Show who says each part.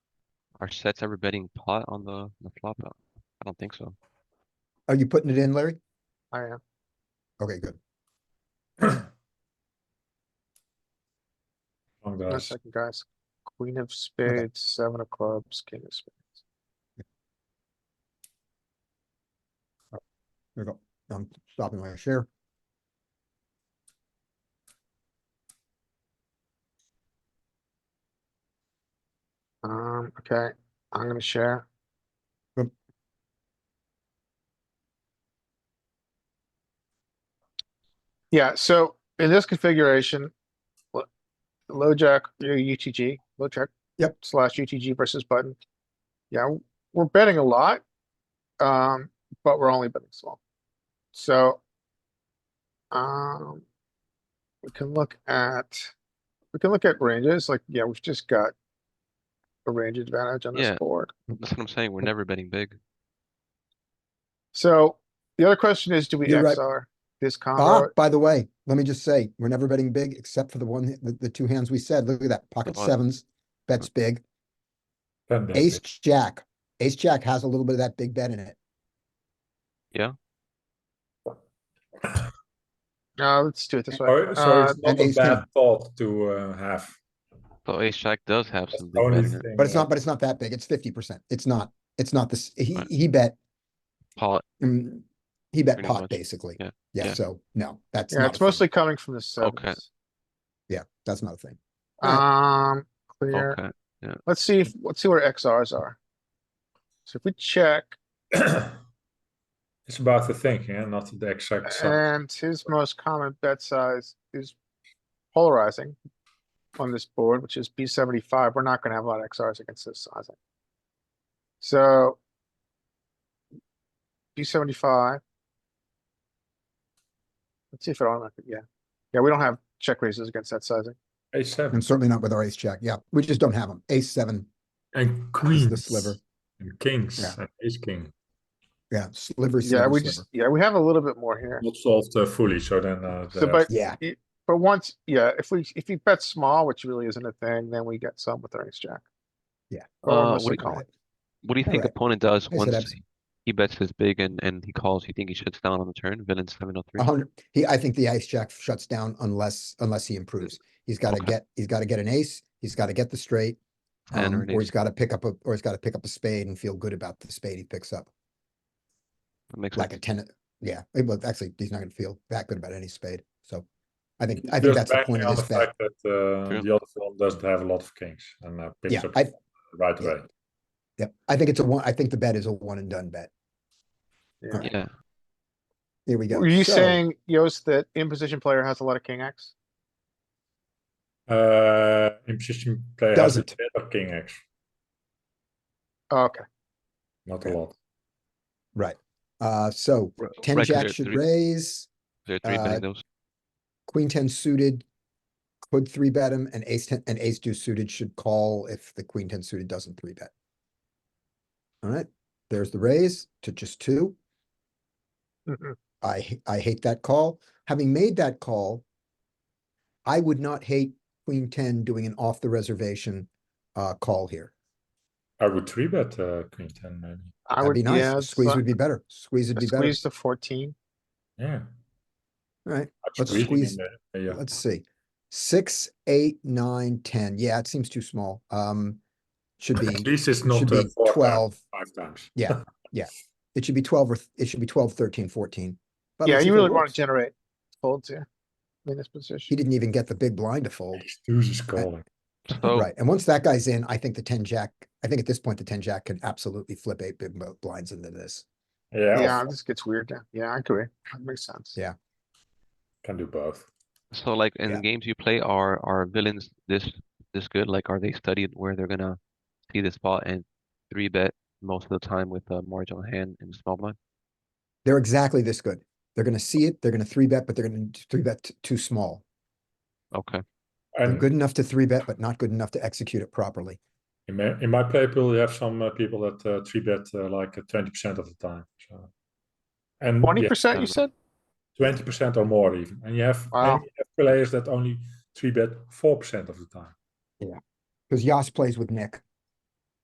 Speaker 1: Are sets ever betting pot on the, the flop? Uh, I don't think so.
Speaker 2: Are you putting it in, Larry?
Speaker 3: I am.
Speaker 2: Okay, good.
Speaker 3: One
Speaker 4: Long guys.
Speaker 3: second, guys. Queen of spades, seven of clubs, king of spades.
Speaker 2: There you go. I'm stopping my share.
Speaker 3: Um, okay, I'm gonna share.
Speaker 2: Yep.
Speaker 3: Yeah, so in this configuration, lo- low jack, your UTG, low jack.
Speaker 2: Yep.
Speaker 3: Slash UTG versus button. Yeah, w- we're betting a lot, um, but we're only betting small. So, um, we can look at, we can look at ranges, like, yeah, we've just got a range advantage on this
Speaker 1: Yeah.
Speaker 3: board.
Speaker 1: That's what I'm saying. We're never betting big.
Speaker 3: So the other question is, do we
Speaker 2: You're right.
Speaker 3: XR this
Speaker 2: Ah,
Speaker 3: combo?
Speaker 2: by the way, let me just say, we're never betting big except for the one, the, the two hands we said. Look at that. Pocket
Speaker 1: Oh.
Speaker 2: sevens, bets big.
Speaker 4: Ten bet
Speaker 2: Ace,
Speaker 4: big.
Speaker 2: jack. Ace, jack has a little bit of that big bet in it.
Speaker 3: No, let's do it this way.
Speaker 4: Sorry, so
Speaker 3: Uh,
Speaker 4: it's not
Speaker 2: and
Speaker 4: a
Speaker 2: ace king.
Speaker 4: bad thought to uh, have.
Speaker 1: So ace jack does have
Speaker 4: That's
Speaker 1: some
Speaker 4: the
Speaker 1: big
Speaker 4: only
Speaker 1: bet in it.
Speaker 4: thing.
Speaker 2: But it's
Speaker 4: uh,
Speaker 2: not, but it's not that big. It's fifty percent. It's not, it's not this, he,
Speaker 1: Right.
Speaker 2: he bet,
Speaker 1: Pot,
Speaker 2: mm, he bet
Speaker 1: Pretty
Speaker 2: pot,
Speaker 1: much.
Speaker 2: basically.
Speaker 1: Yeah.
Speaker 2: Yeah,
Speaker 1: Yeah.
Speaker 2: so, no, that's
Speaker 3: Yeah,
Speaker 2: not, a
Speaker 3: it's
Speaker 2: thing.
Speaker 3: mostly coming from the
Speaker 1: Okay.
Speaker 3: sevens.
Speaker 2: yeah, that's not a thing.
Speaker 3: Um, clear.
Speaker 1: okay.
Speaker 3: Let's see, if let's see where XRs are. So if we check
Speaker 4: It's about the thinking and not the exact size.
Speaker 3: and his most common bet size is polarizing on this board, which is B seventy-five. We're not gonna have a lot of XRs against this sizing. So B seventy-five. Let's see if it automatically, yeah. Yeah, we don't have check raises against that sizing.
Speaker 2: And
Speaker 4: Ace seven
Speaker 2: certainly not with our ace jack. Yeah, we just don't have them. Ace seven,
Speaker 4: and
Speaker 2: is
Speaker 4: queens.
Speaker 2: the sliver.
Speaker 4: And kings
Speaker 2: Yeah.
Speaker 4: and ace king.
Speaker 2: Yeah, sliver,
Speaker 3: Yeah,
Speaker 2: sliver,
Speaker 3: we just,
Speaker 2: sliver.
Speaker 3: yeah, we have a little bit more here.
Speaker 4: Not solved uh, fully, so then. Uh,
Speaker 3: So,
Speaker 4: the-
Speaker 3: but
Speaker 2: Yeah,
Speaker 3: But once, yeah, if we, if you bet small, which really isn't a thing, then we get some with our ace jack.
Speaker 2: Yeah.
Speaker 3: Or
Speaker 1: Uh,
Speaker 3: mostly
Speaker 1: we-
Speaker 3: calling.
Speaker 1: What do you think
Speaker 2: Alright.
Speaker 1: opponent does
Speaker 2: I said
Speaker 1: once
Speaker 2: abs-
Speaker 1: he bets this big and, and he calls? You think he shuts down on the turn? Villain seven oh three?
Speaker 2: a hundred, he, I think the ace jack shuts down unless, unless he improves. He's gotta
Speaker 1: Okay.
Speaker 2: get, he's gotta get an ace, he's gotta get the straight.
Speaker 1: And
Speaker 2: um,
Speaker 1: an
Speaker 2: or
Speaker 1: ace.
Speaker 2: he's gotta pick up a, or he's gotta pick up a spade and feel good about the spade he picks up,
Speaker 1: Makes
Speaker 2: like
Speaker 1: sense.
Speaker 2: a ten. Yeah, eh, well, actually, he's not gonna feel that good about any spade, so I think, I think
Speaker 4: Just
Speaker 2: that's the
Speaker 4: banking
Speaker 2: point
Speaker 4: on
Speaker 2: of this
Speaker 4: the
Speaker 2: bet.
Speaker 4: fact That uh,
Speaker 1: True.
Speaker 4: the other one doesn't have a lot of kings and uh, picks
Speaker 2: Yeah,
Speaker 4: up
Speaker 2: I-
Speaker 4: right
Speaker 2: yeah.
Speaker 4: away.
Speaker 2: Yep, I think it's a one, I think the bet is a one and done bet.
Speaker 3: Yeah.
Speaker 1: Yeah.
Speaker 2: Here we go.
Speaker 3: Were you
Speaker 2: So,
Speaker 3: saying, Yost, that in position player has a lot of king X?
Speaker 4: Uh, in position player has a
Speaker 2: Doesn't.
Speaker 4: bit of king X,
Speaker 3: Oh, Okay,
Speaker 4: not a lot.
Speaker 2: Right, uh, so
Speaker 1: Re-
Speaker 2: ten
Speaker 1: right, 'cause
Speaker 2: jack
Speaker 1: they're
Speaker 2: should
Speaker 1: three-
Speaker 2: raise.
Speaker 1: They're three
Speaker 2: uh,
Speaker 1: betting those.
Speaker 2: queen ten suited could three bet him and ace ten and ace two suited should call if the queen ten suited doesn't three bet. All right, there's the raise to just two.
Speaker 3: Mhm.
Speaker 2: I h- I hate that call. Having made that call, I would not hate queen ten doing an off the reservation uh call here.
Speaker 4: I would three bet uh, queen ten maybe.
Speaker 3: I
Speaker 2: That'd
Speaker 3: would,
Speaker 2: be
Speaker 3: yeah,
Speaker 2: nice.
Speaker 3: it's
Speaker 2: Squeeze
Speaker 3: like
Speaker 2: would be better. Squeeze
Speaker 3: a
Speaker 2: would be better.
Speaker 3: squeeze to fourteen.
Speaker 4: Yeah.
Speaker 2: All right,
Speaker 4: I'd
Speaker 2: Let's
Speaker 4: squeeze it in
Speaker 2: squeeze-
Speaker 4: there, uh, Yeah.
Speaker 2: let's see. Six, eight, nine, ten. Yeah, it seems too small. Um, should be,
Speaker 4: At least it's
Speaker 2: should
Speaker 4: not uh,
Speaker 2: be
Speaker 4: four times,
Speaker 2: twelve.
Speaker 4: five times.
Speaker 2: Yeah, yeah. It should be twelve or, th- it should be 12, 13, 14. But
Speaker 3: Yeah,
Speaker 2: let's see
Speaker 3: you
Speaker 2: if it
Speaker 3: really want
Speaker 2: works.
Speaker 3: to generate folds here in this position.
Speaker 2: He didn't even get the big blind to fold.
Speaker 4: Deuce is calling.
Speaker 1: So
Speaker 2: Right, and once that guy's in, I think the ten jack, I think at this point, the ten jack can absolutely flip eight big bl- blinds into this.
Speaker 4: Yeah,
Speaker 3: Yeah,
Speaker 4: or
Speaker 3: this gets weird now. Yeah, I agree. That makes sense.
Speaker 2: Yeah.
Speaker 4: can do both.
Speaker 1: So like in the
Speaker 2: Yeah.
Speaker 1: games you play, are are villains this this good? Like are they studied where they're gonna see the spot and three bet most of the time with a marginal hand and small blind?
Speaker 2: They're exactly this good. They're gonna see it, they're gonna three bet, but they're gonna t- three bet t- too small.
Speaker 1: Okay.
Speaker 2: They're
Speaker 4: And
Speaker 2: good enough to three bet, but not good enough to execute it properly.
Speaker 4: in my, in my play pool, you have some uh, people that uh, three bet uh, like twenty percent of the time. So. And
Speaker 3: Twenty percent, you
Speaker 1: kinda.
Speaker 3: said?
Speaker 4: twenty percent or more even, and you have,
Speaker 3: Wow.
Speaker 4: and you have players that only three bet four percent of the time.
Speaker 2: Cause Yas plays with Nick